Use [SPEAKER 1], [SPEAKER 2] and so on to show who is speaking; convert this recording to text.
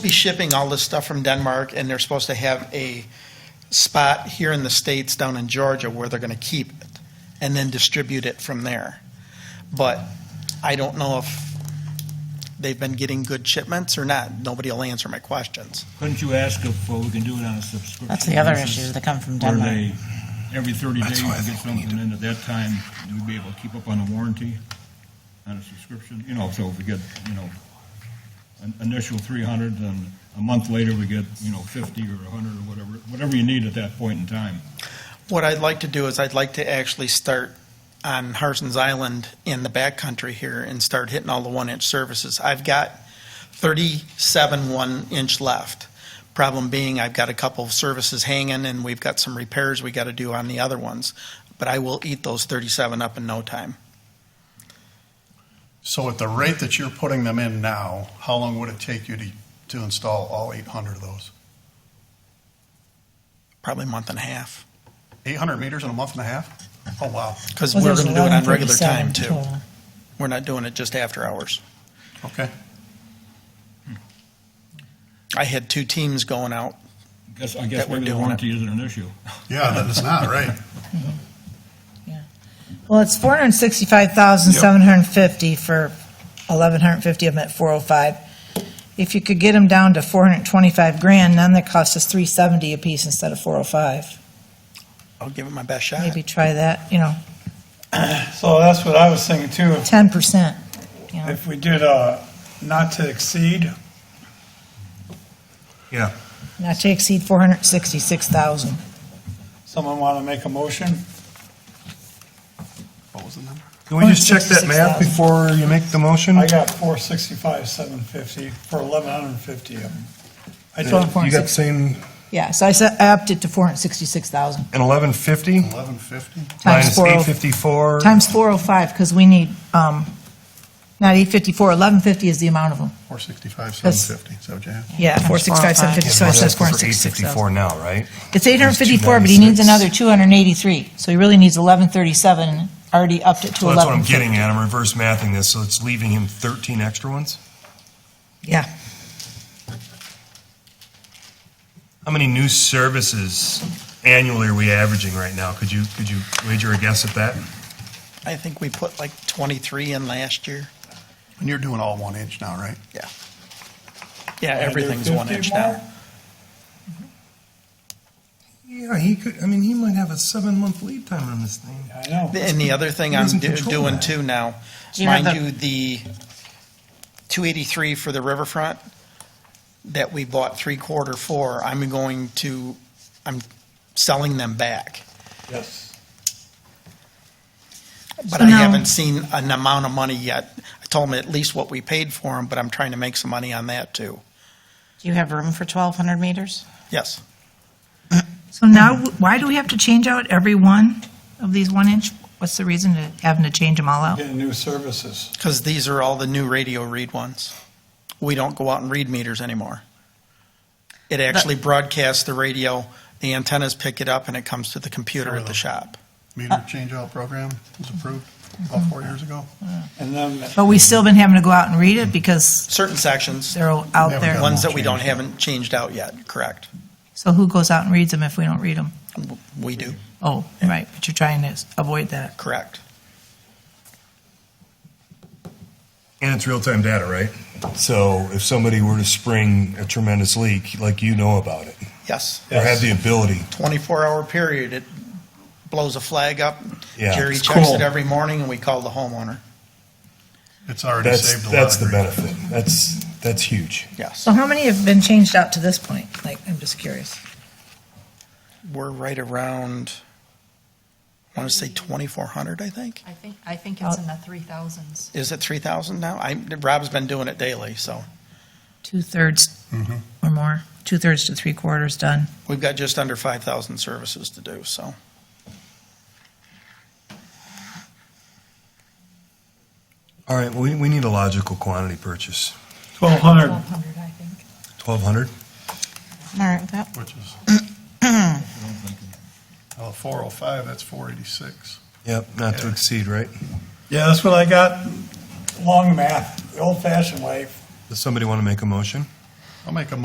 [SPEAKER 1] be shipping all this stuff from Denmark, and they're supposed to have a spot here in the States, down in Georgia, where they're gonna keep it, and then distribute it from there. But I don't know if they've been getting good shipments or not. Nobody will answer my questions.
[SPEAKER 2] Couldn't you ask if uh, we can do it on a subscription?
[SPEAKER 3] That's the other
[SPEAKER 2] basis,
[SPEAKER 3] issues that come from
[SPEAKER 2] Where
[SPEAKER 3] Denmark.
[SPEAKER 2] they, every 30
[SPEAKER 4] That's
[SPEAKER 2] days, we
[SPEAKER 4] why I
[SPEAKER 2] get
[SPEAKER 4] think we need
[SPEAKER 2] something in at that time, we'd be able to keep up on the warranty on a subscription, you know, so if we get, you know, an initial 300, then a month later, we get, you know, 50 or 100 or whatever, whatever you need at that point in time.
[SPEAKER 1] What I'd like to do is I'd like to actually start on Harson's Island in the backcountry here and start hitting all the one-inch services. I've got 37 one-inch left. Problem being, I've got a couple of services hanging and we've got some repairs we got to do on the other ones. But I will eat those 37 up in no time.
[SPEAKER 4] So at the rate that you're putting them in now, how long would it take you to, to install all 800 of those?
[SPEAKER 1] Probably a month and a half.
[SPEAKER 4] 800 meters in a month and a half? Oh, wow.
[SPEAKER 1] Because
[SPEAKER 3] Well,
[SPEAKER 1] we're
[SPEAKER 3] there's
[SPEAKER 1] going to do it on
[SPEAKER 3] 11
[SPEAKER 1] regular time too.
[SPEAKER 3] total.
[SPEAKER 1] We're not doing it just after hours.
[SPEAKER 4] Okay.
[SPEAKER 1] I had two teams going out.
[SPEAKER 2] Guess, I guess
[SPEAKER 1] That we're
[SPEAKER 2] maybe the
[SPEAKER 1] doing it.
[SPEAKER 2] warranty isn't an issue.
[SPEAKER 4] Yeah, that is not, right?
[SPEAKER 3] Well, it's four hundred sixty-five thousand, seven hundred fifty for eleven hundred fifty of them at four oh five. If you could get them down to four hundred twenty-five grand, then that costs us three seventy apiece instead of four oh five.
[SPEAKER 1] I'll give it my best shot.
[SPEAKER 3] Maybe try that, you know,
[SPEAKER 5] So that's what I was thinking too, if-
[SPEAKER 3] ten percent, you know.
[SPEAKER 5] if we did a not to exceed,
[SPEAKER 4] Yeah.
[SPEAKER 3] Not to exceed four hundred sixty-six thousand.
[SPEAKER 5] someone want to make a motion?
[SPEAKER 4] What was the number?
[SPEAKER 6] Can we just check that math
[SPEAKER 3] 166,000.
[SPEAKER 6] before you make the motion?
[SPEAKER 5] I got four sixty-five, seven fifty for eleven hundred and fifty of them. I
[SPEAKER 6] Uh, You
[SPEAKER 5] did,
[SPEAKER 6] got the same,
[SPEAKER 3] Yeah, so I said, I upped it to four hundred sixty-six thousand
[SPEAKER 6] and eleven fifty
[SPEAKER 4] 1150?
[SPEAKER 3] times
[SPEAKER 6] minus
[SPEAKER 3] four
[SPEAKER 6] eight
[SPEAKER 3] oh,
[SPEAKER 6] fifty-four.
[SPEAKER 3] times four oh five, because we need, um, not eight fifty-four, eleven fifty is the amount of them.
[SPEAKER 4] 465,
[SPEAKER 3] That's-
[SPEAKER 4] 750, is that what you have?
[SPEAKER 3] Yeah, four six five seven fifty, so it says four six six
[SPEAKER 6] Eight fifty-four
[SPEAKER 3] thousand.
[SPEAKER 6] now, right?
[SPEAKER 3] It's eight hundred fifty-four, but he needs another two hundred and eighty-three, so he really needs eleven thirty-seven, already upped it to
[SPEAKER 6] So that's what
[SPEAKER 3] eleven
[SPEAKER 6] I'm
[SPEAKER 3] fifty.
[SPEAKER 6] getting at, I'm reverse mathing this, so it's leaving him thirteen extra ones?
[SPEAKER 3] Yeah,
[SPEAKER 6] How many new services annually are we averaging right now? Could you, could you wager a guess at that?
[SPEAKER 1] I think we put like 23 in last year.
[SPEAKER 4] And you're doing all one inch now, right?
[SPEAKER 1] Yeah. Yeah, everything's
[SPEAKER 5] do
[SPEAKER 1] one
[SPEAKER 5] 50
[SPEAKER 1] inch
[SPEAKER 5] more?
[SPEAKER 1] now.
[SPEAKER 6] Yeah, he could, I mean, he might have a seven-month lead time on this thing.
[SPEAKER 5] I know.
[SPEAKER 1] And the other thing
[SPEAKER 6] Who
[SPEAKER 1] I'm
[SPEAKER 6] doesn't
[SPEAKER 1] do-
[SPEAKER 6] control
[SPEAKER 1] doing
[SPEAKER 6] that?
[SPEAKER 1] too now,
[SPEAKER 3] Do you have
[SPEAKER 1] mind
[SPEAKER 3] the-
[SPEAKER 1] you, the 283 for the riverfront that we bought three quarter for, I'm going to, I'm selling them back.
[SPEAKER 5] Yes.
[SPEAKER 1] But
[SPEAKER 3] So
[SPEAKER 1] I
[SPEAKER 3] now-
[SPEAKER 1] haven't seen an amount of money yet. I told them at least what we paid for them, but I'm trying to make some money on that too.
[SPEAKER 7] Do you have room for 1,200 meters?
[SPEAKER 1] Yes.
[SPEAKER 3] so now, why do we have to change out every one of these one inch? What's the reason to having to change them all out?
[SPEAKER 5] Getting new services.
[SPEAKER 1] Because these are all the new radio read ones. We don't go out and read meters anymore. It actually broadcasts the radio, the antennas pick it up, and it comes to the computer at the shop.
[SPEAKER 4] Meter change-out program was approved about four years ago?
[SPEAKER 5] And then,
[SPEAKER 3] But we've still been having to go out and read it because
[SPEAKER 1] Certain sections,
[SPEAKER 3] they're
[SPEAKER 4] Never
[SPEAKER 3] out there.
[SPEAKER 4] done.
[SPEAKER 1] ones that we don't, haven't changed out yet, correct?
[SPEAKER 3] So who goes out and reads them if we don't read them?
[SPEAKER 1] We do,
[SPEAKER 3] Oh, right, but you're trying to avoid that.
[SPEAKER 1] correct.
[SPEAKER 6] And it's real-time data, right? So if somebody were to spring a tremendous leak, like you know about it,
[SPEAKER 1] Yes,
[SPEAKER 6] or have the ability,
[SPEAKER 1] 24-hour period, it blows a flag up.
[SPEAKER 6] Yeah.
[SPEAKER 1] Jerry
[SPEAKER 6] It's
[SPEAKER 1] checks
[SPEAKER 6] cool.
[SPEAKER 1] it every morning, and we call the homeowner,
[SPEAKER 4] It's already
[SPEAKER 6] that's,
[SPEAKER 4] saved a lot of...
[SPEAKER 6] that's the
[SPEAKER 4] grief.
[SPEAKER 6] benefit. That's, that's huge.
[SPEAKER 1] yes.
[SPEAKER 3] So how many have been changed out to this point? Like, I'm just curious.
[SPEAKER 1] We're right around, I want to say 2,400, I think?
[SPEAKER 8] I think, I think it's in the three thousands.
[SPEAKER 1] Is it three thousand now? I, Rob's been doing it daily, so
[SPEAKER 3] Two-thirds or more, two-thirds to three-quarters done.
[SPEAKER 1] we've got just under five thousand services to do, so.
[SPEAKER 6] All right, we, we need a logical quantity purchase.
[SPEAKER 5] twelve hundred,
[SPEAKER 8] Twelve hundred, I think.
[SPEAKER 6] Twelve hundred?
[SPEAKER 7] All right, that,
[SPEAKER 4] Which is, oh, 405, that's 486.
[SPEAKER 6] Yep, not to
[SPEAKER 4] Yeah.
[SPEAKER 6] exceed, right?
[SPEAKER 5] yeah, that's what I got, long math, the old fashioned way.
[SPEAKER 6] Does somebody want to make a motion?
[SPEAKER 4] I'll make a